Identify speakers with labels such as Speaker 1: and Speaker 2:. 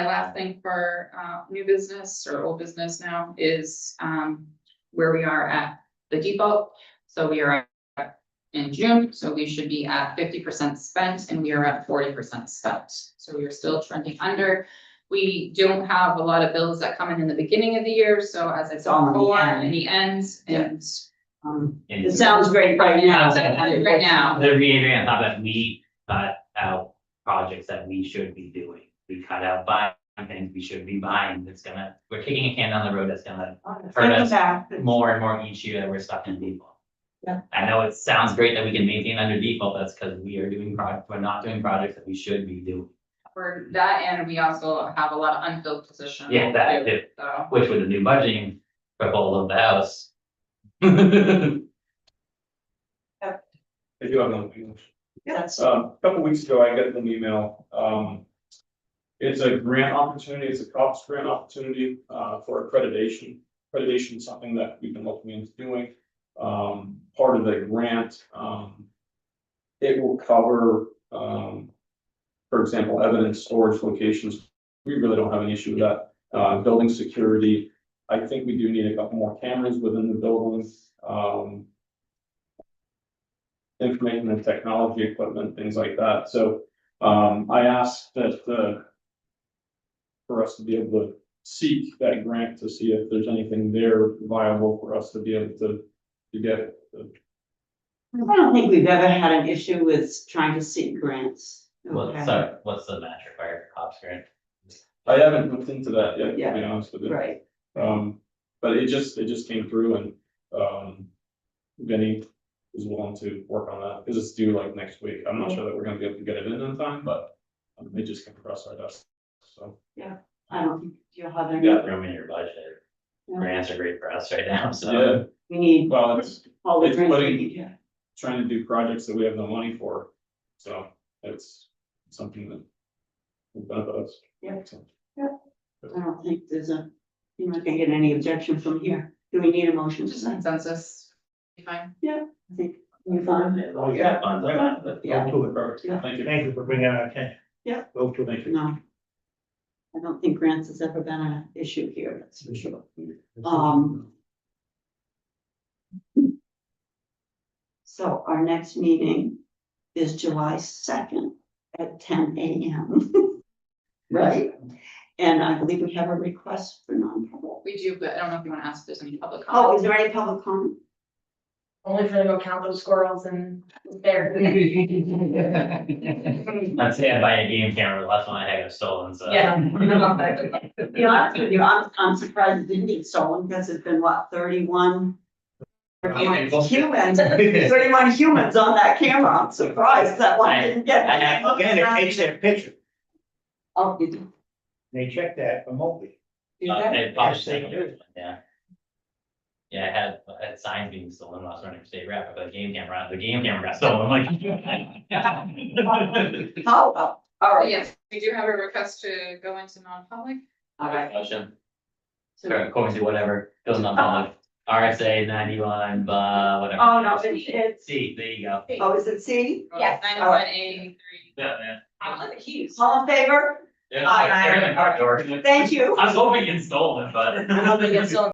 Speaker 1: My last thing for uh new business or old business now is um where we are at the default. So we are at- in June, so we should be at fifty percent spent and we are at forty percent spent. So we are still trending under. We don't have a lot of bills that come in in the beginning of the year, so as I
Speaker 2: All
Speaker 1: saw
Speaker 2: in the
Speaker 1: before,
Speaker 2: end.
Speaker 1: in the end and um
Speaker 3: And
Speaker 2: It sounds great right now.
Speaker 1: Right now.
Speaker 3: they're reiterating on top that we cut out projects that we should be doing. We cut out buying things we should be buying that's gonna, we're kicking a can down the road that's gonna hurt us more and more each year that we're stuck in default.
Speaker 2: Yeah.
Speaker 3: I know it sounds great that we can maintain under default, that's because we are doing projects, we're not doing projects that we should be doing,
Speaker 1: for that and we also have a lot of unfilled positions.
Speaker 3: Yeah, that
Speaker 1: too,
Speaker 3: too.
Speaker 1: So.
Speaker 3: which with the new budgeting proposal of the house. That's
Speaker 4: I do have another thing.
Speaker 2: Yes.
Speaker 4: Um, a couple weeks ago, I got an email, um. It's a grant opportunity, it's a COPS grant opportunity, uh, for accreditation. Accreditation is something that we've been looking into doing. Um, part of the grant, um. It will cover, um, for example, evidence storage locations. We really don't have an issue with that. Uh, building security, I think we do need a couple more cameras within the buildings, um information and technology equipment, things like that. So um, I asked that uh, for us to be able to seek that grant to see if there's anything there viable for us to be able to to get.
Speaker 2: I don't think we've ever had an issue with trying to seek grants.
Speaker 3: What,
Speaker 2: Okay.
Speaker 3: sorry, what's the match required for cops grant?
Speaker 4: I haven't looked into that yet, to be
Speaker 2: Yeah,
Speaker 4: honest with you.
Speaker 2: Right,
Speaker 4: Um, but it just, it just came through and um Vinny is willing to work on that because it's due like next week. I'm not sure that we're gonna be able to get it in in time, but um, it just came across our desk, so.
Speaker 2: I don't think you'll have any,
Speaker 3: Got room in your budget,
Speaker 2: Yeah.
Speaker 3: grants are great for us right now, so.
Speaker 4: Yeah,
Speaker 2: we need
Speaker 4: well, it's
Speaker 2: all the
Speaker 4: It's
Speaker 2: grants we
Speaker 4: putting-
Speaker 2: need, yeah.
Speaker 4: trying to do projects that we have no money for, so it's something that. will benefit us.
Speaker 2: Yeah.
Speaker 4: So,
Speaker 2: I don't think there's a, you're not gonna get any objection from here. Do we need a motion to
Speaker 1: Just
Speaker 2: sign?
Speaker 1: consensus. Be Fine.
Speaker 2: I think we're fine.
Speaker 5: Oh, yeah.
Speaker 2: Yeah.
Speaker 3: Funds on that, but-
Speaker 2: Yeah.
Speaker 5: Go to
Speaker 4: Perfect,
Speaker 2: Yeah.
Speaker 4: thank
Speaker 5: it.
Speaker 4: you.
Speaker 5: Thank you for bringing that attention.
Speaker 2: Yeah.
Speaker 5: Go to it.
Speaker 2: No. I don't think grants has ever been an issue here, that's for sure. Um, So our next meeting is July second at ten AM. Right? And I believe we have a request for non-public.
Speaker 1: We do, but I don't know if you want to ask if there's any public
Speaker 2: Oh, is
Speaker 1: comment.
Speaker 2: there any public comment?
Speaker 6: Only for them to go count those squirrels and there.
Speaker 3: I'd say I buy a game camera, the last one I had was stolen, so. Uh,
Speaker 6: Yeah.
Speaker 2: To be honest with you, I'm, I'm surprised it didn't get stolen because it's been what, thirty-one? Humans, thirty-one humans on that camera. I'm surprised that one didn't get.
Speaker 3: I have-
Speaker 5: Again, it takes their picture.
Speaker 2: Oh, you did.
Speaker 5: They check that remotely.
Speaker 3: Uh, it pops
Speaker 5: Yes, they
Speaker 3: up,
Speaker 5: do.
Speaker 3: Yeah. Yeah, I had, I had signs being stolen last running state rep, but the game camera, the game camera got stolen, I'm like.
Speaker 2: How, oh, all right.
Speaker 1: Yes, we do have a request to go into non-public.
Speaker 2: All right.
Speaker 3: Motion,
Speaker 2: So-
Speaker 3: or according to whatever, goes on public, RSA ninety-one, uh, whatever.
Speaker 6: Oh, no, it's, it's.
Speaker 3: See, there you go.
Speaker 2: Oh, is it C?
Speaker 6: Yes.
Speaker 1: Ninety-one eighty-three.
Speaker 3: Yeah, man.
Speaker 1: I love the keys.
Speaker 2: All in favor?
Speaker 3: Yeah,
Speaker 2: Aye.
Speaker 3: they're in the car door.
Speaker 2: Thank you.
Speaker 3: I was hoping it stolen, but.
Speaker 6: I don't think it's still